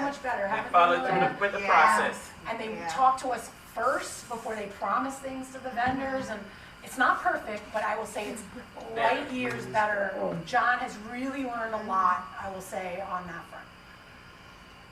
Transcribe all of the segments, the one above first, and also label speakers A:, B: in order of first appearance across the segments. A: better,
B: And
A: have a
B: follow
A: vendor
B: through
A: lab,
B: the- with the
C: Yeah.
B: process.
A: and they
C: Yeah.
A: talk to us first before they promise things to the vendors, and it's not perfect, but I will say it's light
B: Better.
A: years better. John has really learned a lot, I will say, on that front.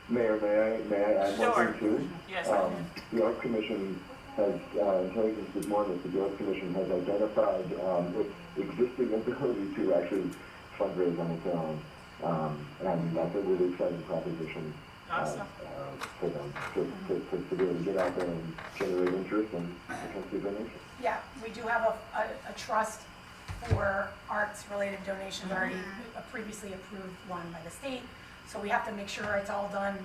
D: Mayor, may I, may I add
B: Sure.
D: one thing too?
B: Yes,
D: Um, the Arts Commission has, uh, intelligence this morning, that the Arts Commission has identified, um, its existing ability to actually fundraise on its own. Um, and that's a really exciting proposition, uh,
B: Awesome.
D: uh, for them, to, to, to, to be able to get out there and generate interest and potentially donation.
A: Yeah, we do have a, a, a trust for arts-related donations already, a previously approved one by the state. So we have to make sure it's all done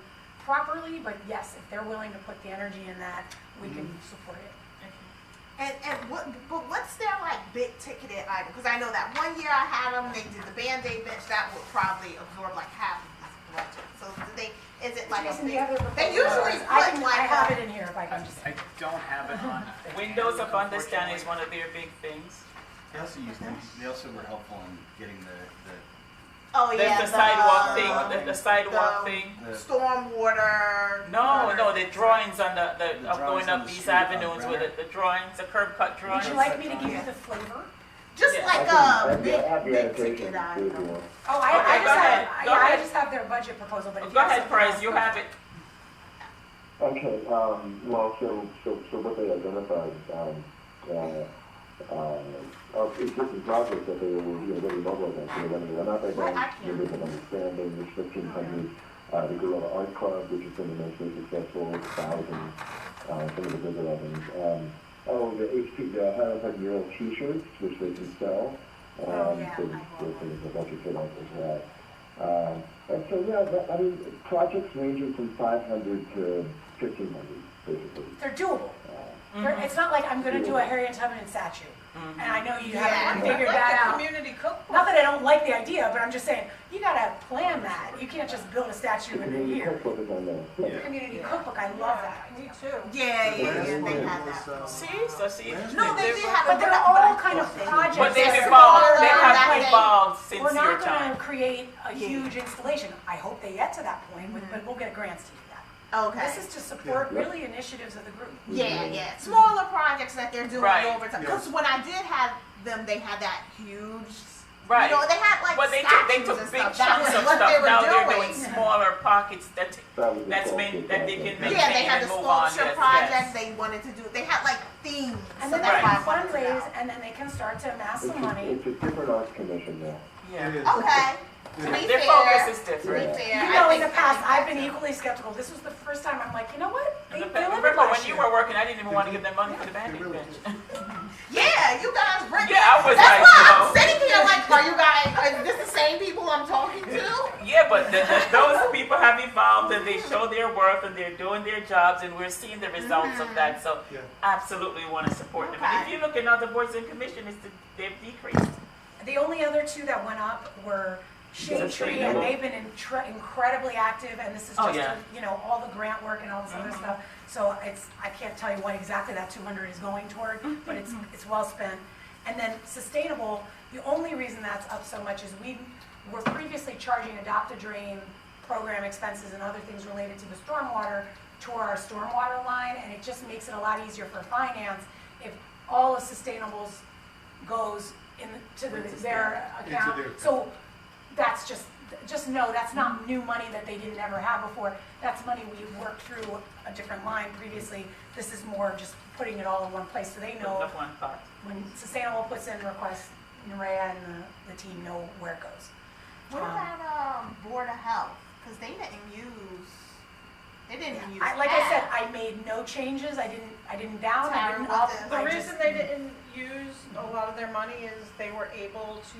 A: properly, but yes, if they're willing to put the energy in that, we can support it.
C: And and what? But what's their like big ticketed item? Because I know that one year I had them, they did the band aid bench. That would probably absorb like half of this budget. So do they? Is it like a
A: Jason, do
C: big?
A: you have their
C: They
A: proposal?
C: usually
A: I
C: put
A: can, I
C: like
A: have
C: a,
A: it in here if I can just.
E: I don't have it on.
B: Windows of Understanding is one of their big things.
E: They also used, they also were helpful in getting the,
C: oh
B: There's
C: yeah,
B: the sidewalk
E: uh,
B: thing, the- the sidewalk
C: the-
B: thing.
E: the, the,
C: Stormwater.
B: No,
C: gutter.
B: no, the drawings on the, the,
E: The
B: of
E: drawings
B: going
E: on
B: up
E: the
B: these
E: street, uh,
B: avenues with
E: right.
B: it, the drawings, the curb cut
A: Would
B: drawings.
A: you
E: Right.
A: like me to give you
C: Yeah.
A: the flavor?
C: Just
B: Yeah.
C: like
D: I
C: a
D: can-
C: big,
D: I have the
C: big
D: annotation,
C: ticket
D: too, if you
C: item.
D: want.
A: Oh, I, I
B: Okay, go
A: just
B: ahead.
A: have,
B: Go
A: yeah, I
B: ahead.
A: just have their budget proposal, but if you
B: Oh, Go
A: have
B: ahead,
A: something
B: Price,
A: else-
B: you have it.
D: Okay, um, well, so, so, so what they identified, um, uh, uh, of existing projects that they were, you know, really mobilizing, so they're running, they're not, they're
C: Well,
D: going,
C: I
D: they're
C: can't.
D: living on expanding, there's fifteen hundred, uh, the Gorilla Art Club, which has been immensely successful, a thousand, uh, some of the bigger ones, um, oh, the HP, the Highland Park mural t-shirts, which they can sell,
C: Oh,
D: um,
C: yeah,
D: so,
C: I
D: so
C: bought one.
D: there's a budget for that as well. Um, And so, yeah, but, I mean, projects ranging from five hundred to fifteen hundred, basically.
A: They're doable.
D: Uh,
B: Mm-hmm.
A: They're, it's not like I'm gonna do a Harriet Tubman statue, and I know you haven't
C: Yeah.
A: figured that out.
F: Community cookbook.
A: Not that I don't like the idea, but I'm just saying, you gotta plan that. You can't just build a statue in
D: The
A: a
D: community
A: year.
D: cookbook is on there. Yeah.
A: Community cookbook, I love that.
F: Me too.
C: Yeah, yeah, yeah.
G: Last
C: They
G: one
C: had
G: was,
C: that.
G: uh,
B: See, so see.
C: No, they did have a.
A: But they're
C: but-
A: all kind of
B: But
A: projects
B: they've
A: that
C: Just
B: evolved, they
C: smaller
B: have
C: back
B: evolved since
A: we're
B: your
A: not gonna
B: time.
A: create a
C: Yeah.
A: huge installation. I hope they get to that point, with- but we'll get grants to do that.
C: Okay.
A: This is to support really initiatives of the group.
C: Yeah, yeah, smaller projects that they're doing
B: Mm-hmm. Right.
C: over time. Because when I did have them, they had that huge,
B: Right.
C: You know, they had like
B: But they took,
C: statues
B: they took
C: and
B: big
C: stuff.
B: chunks
C: that
B: of
C: was what
B: stuff,
C: they were
B: now they're
C: doing.
B: doing smaller pockets that,
D: That was the
B: that's been,
D: sculpture
B: that they can maintain
D: project.
C: Yeah, they had
B: and
C: the
B: move on, yes,
C: sculpture project
B: yes.
C: they wanted to do. They had like themes,
A: And
C: so
A: then they
C: that's why
A: can
C: I wanted to
A: fundraise,
C: know.
A: and then they can start to amass
D: It's
A: some
D: a,
A: money.
D: it's a different arts commission now.
B: Yeah.
G: It is.
C: Okay, to be
B: Their
C: fair,
B: focus is
C: to be
B: different.
C: fair,
A: You
C: I
A: know, in the
C: think that
A: past,
C: they
A: I've
C: had
A: been e-,
C: to-
A: equally skeptical. This was the first time I'm like, you know what? They delivered
B: Remember when
A: last
B: you
A: year.
B: were working, I didn't even want to give them money for
G: They
B: the bandit
G: really
B: bench.
G: did.
C: Yeah, you guys were.
B: Yeah, I was
C: That's
B: like,
C: why
B: you
C: I'm
B: know.
C: sitting here like, are you guys? Is this the same people I'm talking to?
B: Yeah, but the, the, those people have evolved and they show their worth and they're doing their jobs and we're seeing the results of that. So
G: Yeah.
B: absolutely want to support them. And if
C: Okay.
B: you look at other boards and commissions, it's- they've decreased.
A: The only other two that went up were Shade
B: That's
A: Tree,
B: right.
A: and they've been intre- incredibly active, and this is
B: Oh,
A: just,
B: yeah.
A: you know, all the grant work and all this other stuff. So it's, I can't tell you what exactly that two hundred is going toward, but it's, it's well spent. And then sustainable, the only reason that's up so much is we were previously charging adopt a drain program expenses and other things related to the stormwater to our stormwater line, and it just makes it a lot easier for finance if all of sustainable's goes in, to the- their
G: Into
A: account.
G: their account.
A: So that's just, just know, that's not new money that they didn't ever have before. That's money we worked through a different line previously. This is more just putting it all in one place, so they know
B: Of one part.
A: when Sustainable puts in requests, Nerea and the, the team know where it goes.
C: What
A: Um,
C: about um, Board of Health? Because they didn't use, they didn't use.
A: I, like I said,
C: that.
A: I made no changes, I didn't, I didn't down, I
C: Sorry,
A: didn't
C: what
A: up.
C: the-
F: The
A: I
F: reason
A: just-
F: they didn't use a lot of their money is they were able to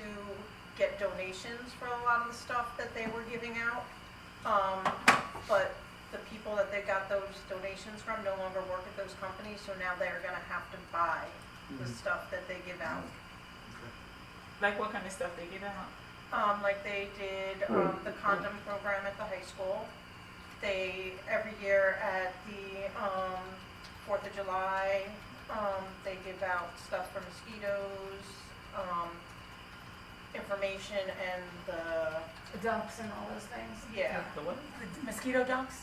F: get donations for a lot of the stuff that they were giving out. Um, but the people that they got those donations from no longer work at those companies, so now they're gonna have to buy the stuff that they give out.
B: Like what kind of stuff they give out?
F: Um, like they did, um, the condom program at the high school. They, every year at the, um, Fourth of July, um, they give out stuff for mosquitoes, um, information and the,
A: Dumps and all those things,
F: yeah.
B: The what?
A: The mosquito dunks.